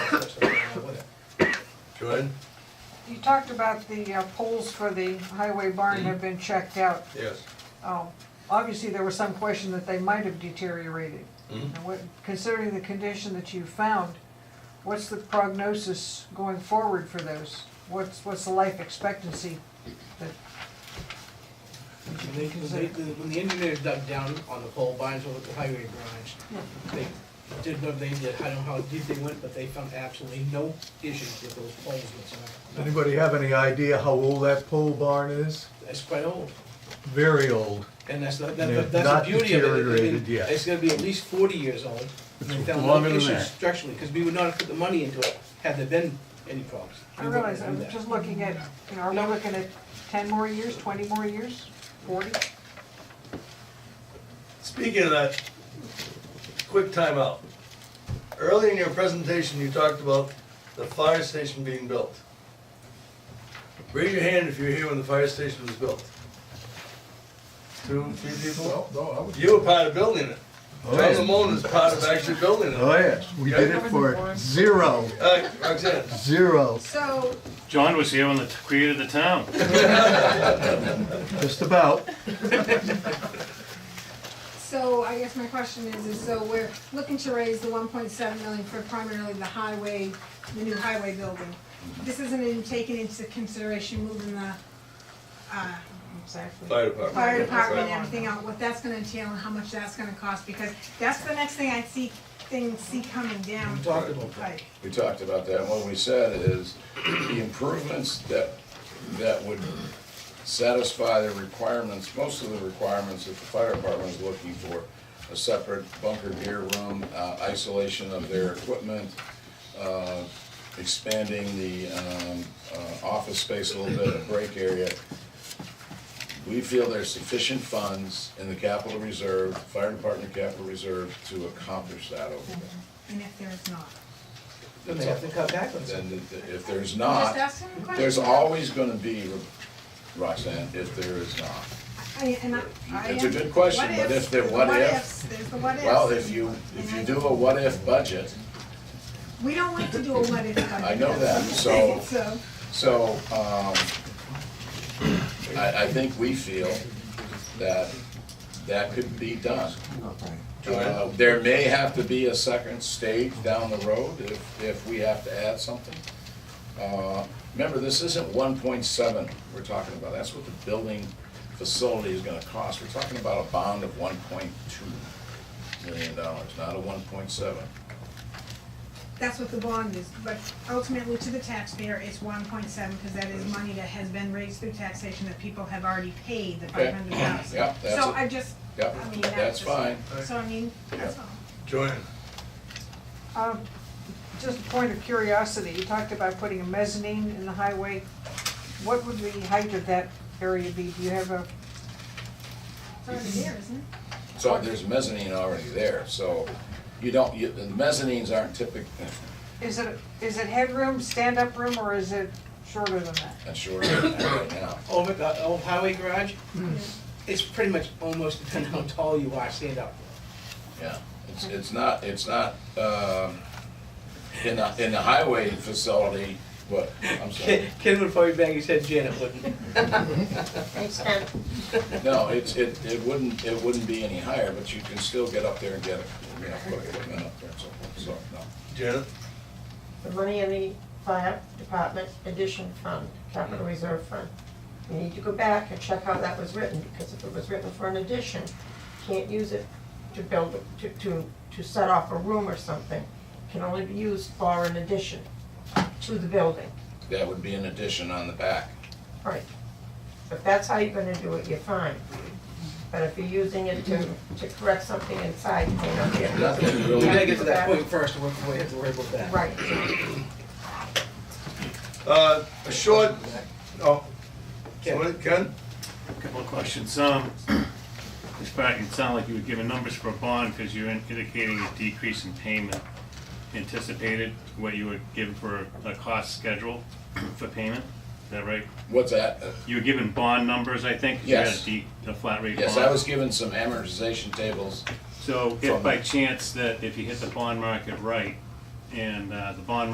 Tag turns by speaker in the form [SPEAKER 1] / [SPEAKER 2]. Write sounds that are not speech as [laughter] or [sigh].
[SPEAKER 1] Joanne?
[SPEAKER 2] You talked about the uh, poles for the highway barn have been checked out.
[SPEAKER 1] Yes.
[SPEAKER 2] Um, Obviously, there was some question that they might have deteriorated.
[SPEAKER 1] Mhm.
[SPEAKER 2] Now, what- Considering the condition that you found, what's the prognosis going forward for those? What's, what's the life expectancy?
[SPEAKER 3] When they, when they, when the engineers dug down on the pole barns or the highway barns, they did what they did, I don't know how deep they went, but they found absolutely no issues with those poles whatsoever.
[SPEAKER 4] Anybody have any idea how old that pole barn is?
[SPEAKER 3] That's quite old,
[SPEAKER 4] Very old.
[SPEAKER 3] and that's, the- that-
[SPEAKER 4] They're
[SPEAKER 3] that- that's
[SPEAKER 4] not
[SPEAKER 3] the beauty of it. It- it-
[SPEAKER 4] deteriorated yet.
[SPEAKER 3] It's gonna be at least forty years old, and they found no
[SPEAKER 5] Longer than
[SPEAKER 3] issues
[SPEAKER 5] that.
[SPEAKER 3] structurally, because we would not have put the money into it had there been any problems.
[SPEAKER 2] I
[SPEAKER 3] We wouldn't
[SPEAKER 2] realize,
[SPEAKER 3] do
[SPEAKER 2] I'm
[SPEAKER 3] that.
[SPEAKER 2] just looking at, you know, are we
[SPEAKER 3] No.
[SPEAKER 2] looking at ten more years, twenty more years, forty?
[SPEAKER 1] Speaking of that, quick timeout. Early in your presentation, you talked about the fire station being built. Raise your hand if you were here when the fire station was built. Two, three people?
[SPEAKER 4] no, I would.
[SPEAKER 1] You were part of building it.
[SPEAKER 5] Oh,
[SPEAKER 1] John
[SPEAKER 5] yeah.
[SPEAKER 1] Lamone was part of actually building it.
[SPEAKER 4] Oh, yes, we did it for zero,
[SPEAKER 1] Uh, Roxanne,
[SPEAKER 4] zero,
[SPEAKER 6] So,
[SPEAKER 5] John was here when they created the town.
[SPEAKER 4] just about.
[SPEAKER 6] so I guess my question is, is so we're looking to raise the one point seven million for primarily the highway, the new highway building. This isn't even taken into consideration moving the, uh,
[SPEAKER 2] Exactly.
[SPEAKER 1] fire department.
[SPEAKER 6] fire department and
[SPEAKER 1] Right.
[SPEAKER 6] everything out, what that's gonna entail and how much that's gonna cost, because that's the next thing I see, things see coming down.
[SPEAKER 3] We talked about that.
[SPEAKER 6] Right,
[SPEAKER 7] We talked about that, and what we said is, the improvements that, that would satisfy the requirements, most of the requirements that the fire department is looking for, a separate bunker gear room, uh, isolation of their equipment, uh, expanding the um, uh, office space a little bit, a break area. We feel there's sufficient funds in the capital reserve, fire department capital reserve, to accomplish that over there.
[SPEAKER 6] and if there's not.
[SPEAKER 3] Then they have to cut back on something.
[SPEAKER 7] Then th- th- if there's
[SPEAKER 6] I'm
[SPEAKER 7] not,
[SPEAKER 6] just asking a question.
[SPEAKER 7] Uh, there's always gonna be, Roxanne, if there is not.
[SPEAKER 6] I, and I, I.
[SPEAKER 7] It's a good question,
[SPEAKER 6] what
[SPEAKER 7] but
[SPEAKER 6] ifs,
[SPEAKER 7] if there-
[SPEAKER 6] the
[SPEAKER 7] what if?
[SPEAKER 6] ifs, There's the what ifs.
[SPEAKER 7] Well, if you, if you do a what-if budget,
[SPEAKER 6] We don't like to do a what if budget.
[SPEAKER 7] I know
[SPEAKER 6] [laughs]
[SPEAKER 7] that, so- so, um, I, I think we feel that that could be done. Uh, There may have to be a second stage down the road if, if we have to add something. Uh, Remember, this isn't one point seven we're talking about, that's what the building facility is gonna cost. We're talking about a bond of one point two million dollars, not a one point seven.
[SPEAKER 6] That's what the bond is, but ultimately to the taxpayer, it's one point seven, because that is money that has been raised through taxation that people have already paid, the
[SPEAKER 7] Okay.
[SPEAKER 6] five hundred thousand.
[SPEAKER 7] Yeah, that's
[SPEAKER 6] So
[SPEAKER 7] it.
[SPEAKER 6] I just,
[SPEAKER 7] Yep,
[SPEAKER 6] I mean,
[SPEAKER 7] that's
[SPEAKER 6] that's just,
[SPEAKER 7] fine.
[SPEAKER 6] so I mean, that's all.
[SPEAKER 1] Joanne,
[SPEAKER 2] Um, Just a point of curiosity, you talked about putting a mezzanine in the highway. What would the height of that area be? Do you have a,
[SPEAKER 6] It's already there, isn't it?
[SPEAKER 7] So there's mezzanine already there, so you don't, you, the mezzanines aren't uh, typical,
[SPEAKER 2] is it, is it headroom, stand-up room, or is it shorter than that?
[SPEAKER 7] not sure right now.
[SPEAKER 3] over the old highway garage, it's pretty much almost depending on how tall you are, stand up.
[SPEAKER 7] Yeah, it's, it's not, it's not, um, in the, in the highway facility, but, I'm sorry.
[SPEAKER 3] Ken Ken would probably bang his head, Janet wouldn't.
[SPEAKER 7] No, it's, it, it wouldn't, it wouldn't be any higher, but you can still get up there and get it, you know, put equipment up there and so forth, so, no.
[SPEAKER 1] Janet,
[SPEAKER 8] the money in the fire department addition fund, capital reserve fund. You need to go back and check how that was written, because if it was written for an addition, can't use it to build, to, to, to set off a room or something. Can only be used for an addition to the building,
[SPEAKER 7] That would be an addition on the back.
[SPEAKER 8] right? If that's how you're gonna do it, you're fine. But if you're using it to, to correct something inside, you may not be able to.
[SPEAKER 7] Nothing
[SPEAKER 3] We gotta
[SPEAKER 7] really,
[SPEAKER 3] get to that point first, and we're, we have to worry about that.
[SPEAKER 8] Right.
[SPEAKER 1] uh, a short, oh,
[SPEAKER 3] Ken.
[SPEAKER 1] somebody- Ken?
[SPEAKER 5] Couple of questions. Um, [clears throat] this part, it sounded like you were giving numbers for a bond because you're in- indicating a decrease in payment anticipated, what you were given for a cost schedule for payment. Is that right?
[SPEAKER 7] what's that? Uh,
[SPEAKER 5] You were given bond numbers, I think? 'cause you had a
[SPEAKER 7] Yes.
[SPEAKER 5] de- A flat rate bond.
[SPEAKER 7] Yes, I was given some amortization tables,
[SPEAKER 5] So if by chance that if you hit the bond market right and uh, the bond